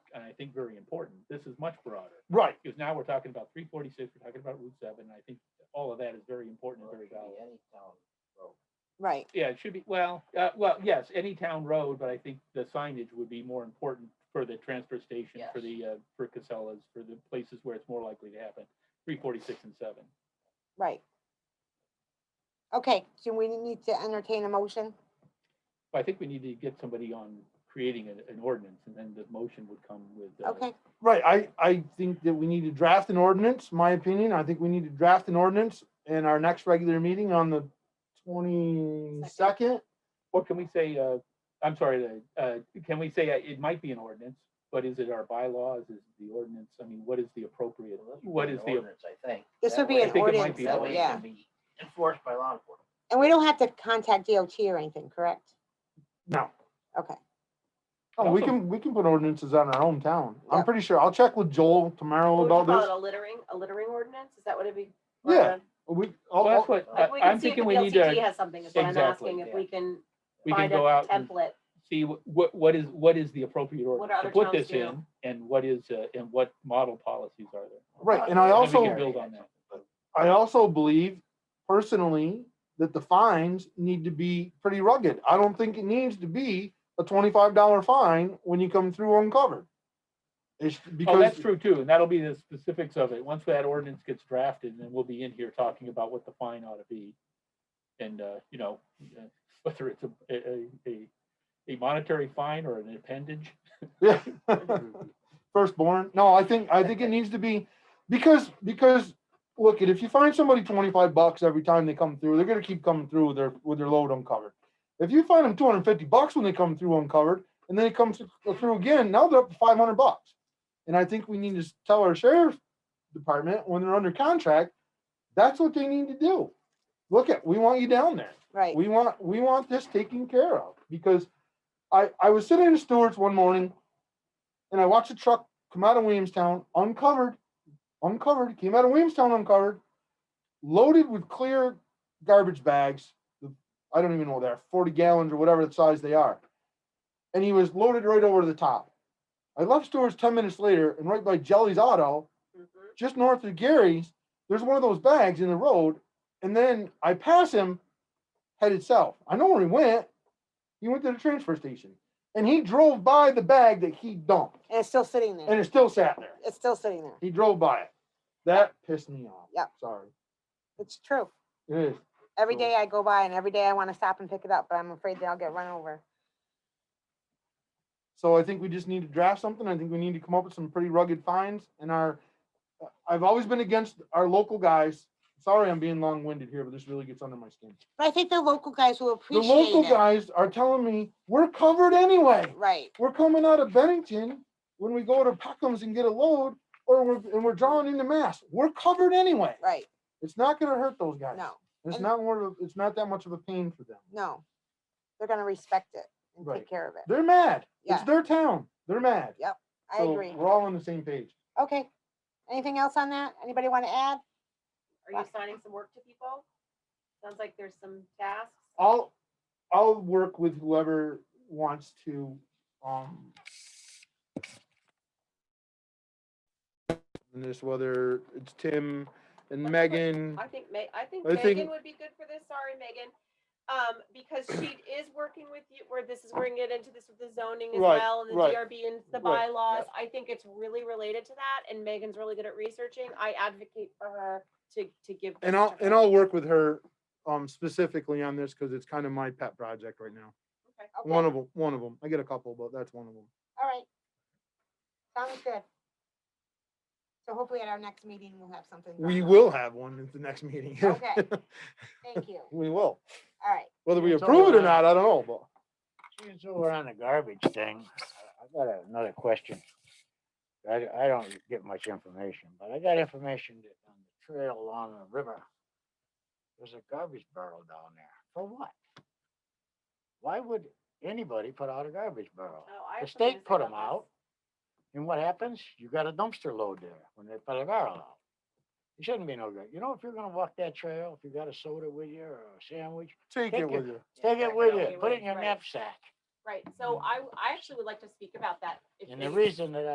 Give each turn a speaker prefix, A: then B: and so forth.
A: I think very important. This is much broader.
B: Right,
A: Because now we're talking about three forty-six, we're talking about Route seven, and I think all of that is very important and very valuable.
C: Right,
A: Yeah, it should be, well, uh, well, yes, any town road, but I think the signage would be more important for the transfer station, for
D: Yes.
A: the, uh, for Casellas, for the places where it's more likely to happen, three forty-six and seven.
C: right. Okay, so we need to entertain a motion.
A: But I think we need to get somebody on creating an, an ordinance, and then the motion would come with. uh,
C: Okay,
B: right. I, I think that we need to draft an ordinance, my opinion. I think we need to draft an ordinance in our next regular meeting on the twenty-second.
A: Or can we say, uh, I'm sorry, uh, uh, can we say uh, it might be an ordinance, but is it our bylaws, is it the ordinance, I mean, what is the appropriate, what is the,
D: ordinance, I think.
C: This
D: That
C: would be
D: way-
C: an I think it might
A: ordinance, be an
D: That way it can
C: ordinance.
D: be Enforced by law enforcement.
C: and we don't have to contact DOT or anything, correct?
B: No.
C: Okay,
B: Oh, we
A: Also-
B: can, we can put ordinances on our hometown. I'm
C: Yeah.
B: pretty sure. I'll check with Joel tomorrow
E: What would you
B: about
E: call it,
B: this.
E: a littering, a littering ordinance? Is that what it'd be?
B: Yeah, We,
A: well,
B: I'll-
A: that's
B: I'll-
A: what,
D: Like,
A: I-
E: Like, we
A: I'm
E: can see if the
A: thinking we need
E: VLCT
A: to,
E: has something, is what I'm
A: Exactly,
E: asking, if
D: yeah.
E: we can
A: we can
E: find a
A: go out and
E: template.
A: see wh- what, what is, what is the appropriate ordinance to
E: other
A: put
E: towns
A: this in? And what is, uh, and what model policies are there?
B: Right, and I
A: And
B: also-
A: we can build on that.
B: I also believe personally that the fines need to be pretty rugged. I don't think it needs to be a twenty-five dollar fine when you come through uncovered. It's
A: Oh,
B: because,
A: that's true too, and that'll be the specifics of it. Once that ordinance gets drafted, then we'll be in here talking about what the fine ought to be. And, uh, you know, uh, whether it's a- a, a, a monetary fine or an appendage.
B: yeah. Firstborn, no, I think, I think it needs to be, because, because, look, if you find somebody twenty-five bucks every time they come through, they're gonna keep coming through with their, with their load uncovered. If you find them two hundred and fifty bucks when they come through uncovered, and then it comes uh, through again, now they're up to five hundred bucks. And I think we need to tell our sheriff's department when they're under contract, that's what they need to do. Look at, we want you down there.
C: right.
B: We want, we want this taken care of, because I, I was sitting in Stewart's one morning and I watched a truck come out of Williamstown uncovered, uncovered, came out of Williamstown uncovered, loaded with clear garbage bags. the- I don't even know what they're, forty gallons or whatever the size they are. And he was loaded right over the top. I left Stewart's ten minutes later and right by Jelly's Auto,
E: Mhm.
B: just north of Gary's, there's one of those bags in the road, and then I pass him headed south. I know where he went. He went to the transfer station, and he drove by the bag that he dumped,
C: And it's still sitting there.
B: and it still sat there.
C: It's still sitting there.
B: He drove by it. That pissed me off.
C: Yep.
B: Sorry.
C: It's true.
B: It is.
C: Every
B: So-
C: day I go by and every day I want to stop and pick it up, but I'm afraid that I'll get run over.
B: So I think we just need to draft something. I think we need to come up with some pretty rugged fines and our, I've always been against our local guys. Sorry, I'm being long-winded here, but this really gets under my skin.
C: But I think the local guys will
B: The
C: appreciate
B: local
C: it.
B: guys are telling me, we're covered anyway.
C: Right,
B: we're coming out of Bennington when we go to Peckham's and get a load, or we're and we're drawing into Mass. We're covered anyway.
C: right.
B: It's not going to hurt those guys.
C: No,
B: it's
C: and-
B: not more. Of, it's not that much of a pain for them.
C: no. They're gonna respect it and
B: Right.
C: take care of it.
B: They're mad.
C: Yeah.
B: It's their town. They're mad.
C: I
B: So
C: agree.
B: We're all on the same page.
C: Okay. Anything else on that? Anybody want to add?
E: Are you assigning some work to people? Sounds like there's some tasks.
B: I'll I'll work with whoever wants to. Um, and this whether it's Tim and
E: Let's put-
B: Megan.
E: I think Ma- I think
B: I think-
E: Megan would be good for this, sorry, Megan. Um, because she is working with you, where this is, we're gonna get into this with the zoning as
B: Right,
E: well, and the
B: right,
E: DRB and the
B: right, yeah.
E: bylaws. I think it's really related to that, and Megan's really good at researching. I advocate for her to, to give.
B: And
E: this
B: I'll,
E: to
B: and
E: her.
B: I'll work with her, um, specifically on this, cause it's kind of my pet project right now.
C: Okay,
B: One of them, one of them. I get a couple, but that's one of them.
C: All right. Sounds good. So hopefully at our next meeting, we'll have something.
B: We
C: drawn up.
B: will have one at the next meeting.
C: Okay. Thank you.
B: We will.
C: All right.
B: Whether we
D: It's
B: approve it or
D: alright.
B: not, I don't know, but.
D: Since we're on the garbage thing, I I got another question. I, I don't get much information, but I got information that on the trail along the river, there's a garbage barrel down there. For what? Why would anybody put out a garbage barrel?
E: Oh, I
D: The
E: have something to
D: state
E: say
D: put
E: about
D: them
E: this.
D: out. And what happens? You got a dumpster load there when they put a barrel out. It shouldn't be no good. You know, if you're gonna walk that trail, if you got a soda with you or a sandwich,
B: Take
D: Take
B: it with
D: it.
B: you.
D: take
E: Yeah,
D: it with
E: take
D: you. Put it in your
E: right.
D: knapsack.
E: Right, so I, I actually would like to speak about that. if
D: Mm. And the
E: it's-
D: reason that